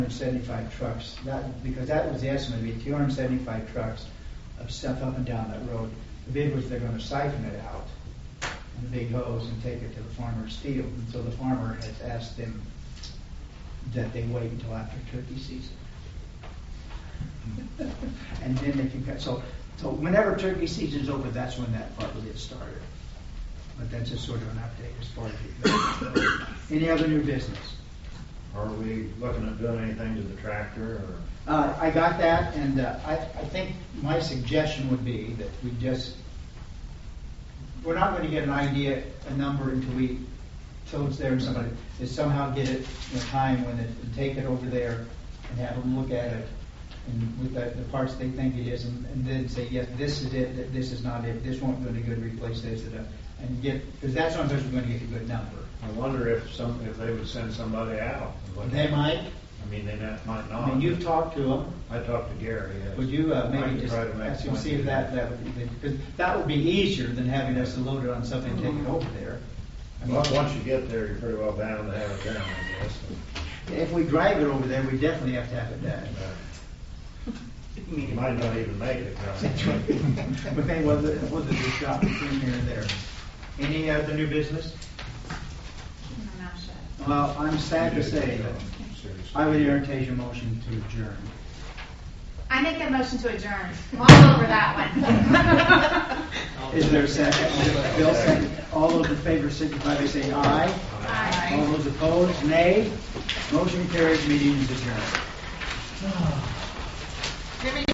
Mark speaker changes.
Speaker 1: 275 trucks, that, because that was the estimate, it'd be 275 trucks of stuff up and down that road. The bid was they're gonna siphon it out in big hose and take it to the farmer's field. And so the farmer has asked them that they wait until after turkey season. And then they can cut, so, so whenever turkey season's over, that's when that part will get started. But that's just sort of an update as far as it goes. Any other new business?
Speaker 2: Are we looking at doing anything to the tractor or?
Speaker 1: Uh, I got that, and uh, I, I think my suggestion would be that we just, we're not going to get an idea, a number until we, till it's there and somebody, is somehow get it in a time when it, and take it over there and have them look at it and with the, the parts they think it is and, and then say, yes, this is it, that this is not it, this won't do any good, replace this, and, uh, and get, because that's when we're going to get a good number.
Speaker 2: I wonder if some, if they would send somebody out. and look at
Speaker 1: They
Speaker 2: it.
Speaker 1: might,
Speaker 2: I mean, they not- might
Speaker 1: I
Speaker 2: not.
Speaker 1: mean, you've
Speaker 2: but
Speaker 1: talked to them.
Speaker 2: I talked to Gary, yes.
Speaker 1: Would you uh,
Speaker 2: I
Speaker 1: maybe
Speaker 2: could
Speaker 1: just
Speaker 2: try to make
Speaker 1: ask him,
Speaker 2: one.
Speaker 1: to see if that, that would be, because that would be easier than having us load it on something and take it over there. I mean,
Speaker 2: Well, once you get there, you're pretty well bound to have it down, I guess.
Speaker 1: If we drive it over there, we definitely have to have it done.
Speaker 2: but, uh, You might not even make it. right?
Speaker 1: But then, whether, whether there's shop between here and there. Any other new business?
Speaker 3: My mouth shut.
Speaker 1: Well, I'm sad to say that
Speaker 2: Seriously.
Speaker 1: I would entertain a motion to adjourn.
Speaker 3: I make that motion to adjourn. Walk over that one.
Speaker 1: Is there a second? Bill, second. All those in favor signify by saying aye.
Speaker 3: Aye.
Speaker 1: All those opposed, nay. Motion carries, meeting is adjourned.